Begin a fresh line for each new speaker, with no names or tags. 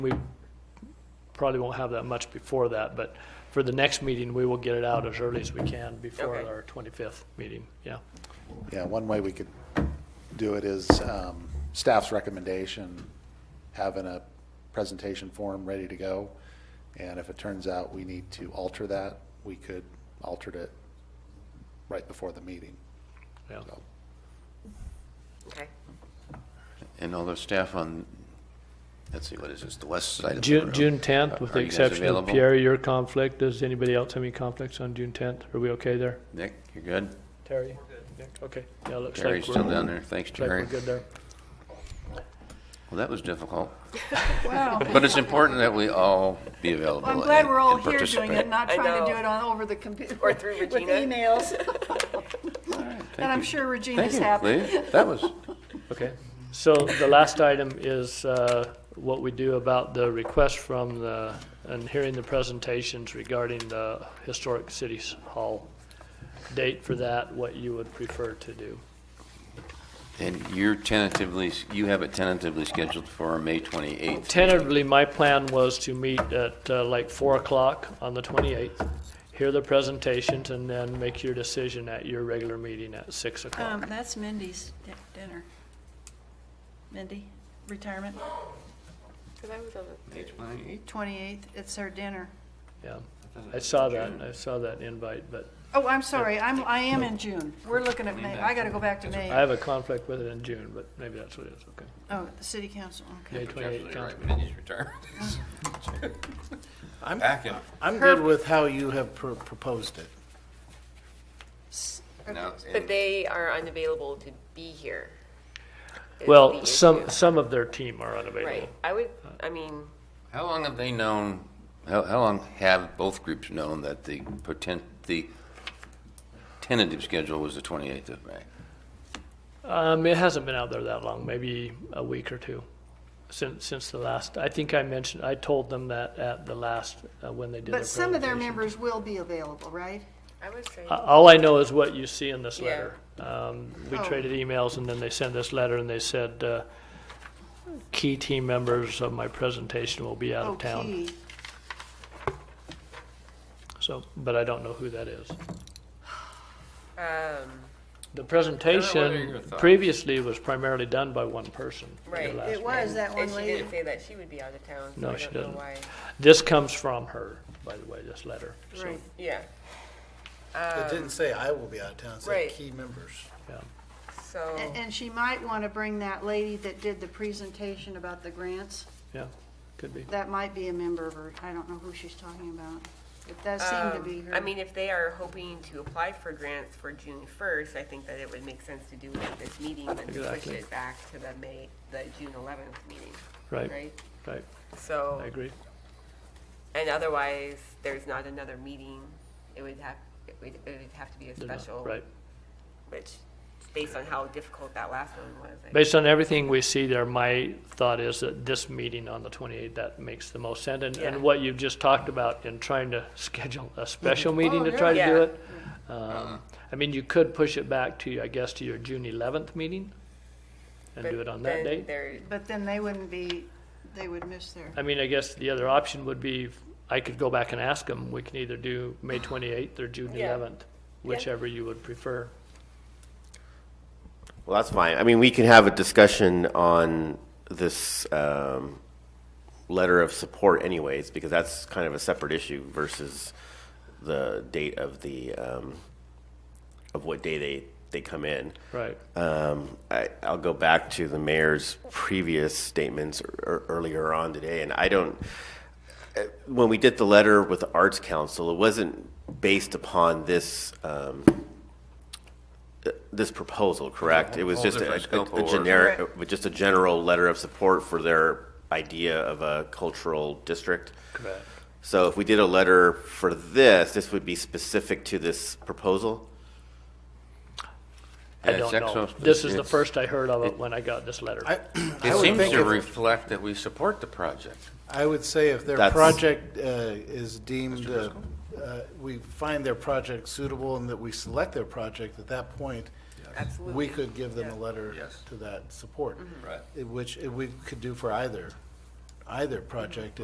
We probably won't have that much before that, but for the next meeting, we will get it out as early as we can before
Okay.
our 25th meeting, yeah.
Yeah, one way we could do it is um, staff's recommendation, having a presentation form ready to go. And if it turns out we need to alter that, we could alter it right before the meeting.
Yeah.
So,
Okay.
And all the staff on, let's see, what is this, the west side of the
June,
room?
June 10th, with the
Are you guys
exception of
available?
Pierre, your conflict, does anybody else have any conflicts on June 10th? Are we okay there?
Nick, you're good?
Terry? Nick, Okay, yeah, looks like we're.
Terry's still down there, thanks
Looks like we're
Terry.
good there.
Well, that was difficult,
Wow.
but it's important that we all be available.
Well, I'm glad
and-
we're all
and
here doing
participate.
it, not
I
trying to
know.
do it on, over the computer.
Or through
With
Regina.
emails. And
Thank
I'm
you.
sure
Thank
Regina's
you,
happy.
Lee. That was,
Okay, so the last item is uh, what we do about the request from the, and hearing the presentations regarding the historic city hall date for that, what you would prefer to do.
and you're tentatively, you have it tentatively scheduled for May 28th.
Tentatively, my plan was to meet at uh, like 4 o'clock on the 28th, hear the presentations, and then make your decision at your regular meeting at 6 o'clock.
Um, that's Mindy's di- dinner. Mindy, retirement,
Because I was on
May 28th?
twenty-eighth, it's her dinner.
Yeah, I saw that, I saw that invite, but
Oh, I'm sorry, I'm, I am in June. We're looking at May, I gotta go back to
I
May.
have a conflict with it in June, but maybe that's what it is, okay.
Oh, the city council,
May
okay.
28th, council.
I'm good with how you have pro- proposed it.
S-
the, but they are unavailable to be here. is the
Well,
issue.
some, some of their team are unavailable.
Right. I would, I mean,
How long have they known, how, how long have both groups known that the potent, the tentative schedule was the 28th of May?
Um, it hasn't been out there that long, maybe a week or two since, since the last, I think I mentioned, I told them that at the last, uh, when they did their
But some of their
presentation.
members will be available, right?
I would say,
Uh, All I know is what you see in this
Yeah.
letter. Um, we
Oh.
traded emails and then they sent this letter and they said, uh, key team members of my presentation will be out
Oh,
of town.
Okay.
So, but I don't know who that is.
um,
The
what are your
presentation
thoughts?
previously was primarily done by one person. the
Right.
last
It was that
and
one
she
lady.
didn't say that she would be out of town. So
No,
I
she
don't know
doesn't.
Why?
This comes from her, by the way, this letter. So,
Right.
Yeah.
It didn't say I will be out of town, it
Um, right.
said key members.
yeah.
So
And, and she might wanna bring that lady that did the presentation about the grants.
Yeah, could be.
That might be a member of her, I don't know who she's talking about. It does seem to
um,
be her.
I mean, if they are hoping to apply for grants for June first, I think that it would make sense to do it at this meeting, but to push
Exactly.
it back to the May, the June eleventh meeting,
Right,
right?
right.
So.
I agree.
And otherwise, there's not another meeting. It would have, it would, it would have to be a
They're not-
special.
Right.
Which, based on how difficult that last one was. I-
Based on everything we see there, my thought is that this meeting on the 28th, that makes the most sense. And,
Yeah.
and what you've just talked about in trying to schedule a special meeting to try to
Oh, Yeah.
do it. um, I mean, you could push it back to, I guess, to your June 11th meeting and
but
do it on
then
that date.
there-
But then they wouldn't be, they would miss their,
I mean, I guess the other option would be, if I could go back and ask them, we can either do May 28th or June
Yeah.
11th, whichever you would prefer.
Well, that's fine. I mean, we can have a discussion on this um, letter of support anyways, because that's kind of a separate issue versus the date of the, um, of what day they, they come in.
Right.
Um, I, I'll go back to the mayor's previous statements ear- earlier on today, and I don't, uh, when we did the letter with the Arts Council, it wasn't based upon this, um, uh, this proposal, correct? It was
Whole
just a,
different scope of
a
work.
generic, uh, just a general letter of support for their idea of a cultural district.
Correct.
So if we did a letter for this, this would be specific to this proposal?
I
Yeah,
don't
it's
know.
exo-
This is the
it's-
first I heard of it when I got this letter.
I, I
It
would
seems
think,
to
if-
reflect that we support the project.
I would say if their
That's-
project uh, is deemed, uh, uh, we find their project suitable and that we select their project, at that point, we
Absolutely. Mm-hmm.
could give them a letter
Yes.
to that support.
Right.
It- Which it- we could do for either,
Mm-hmm.
either project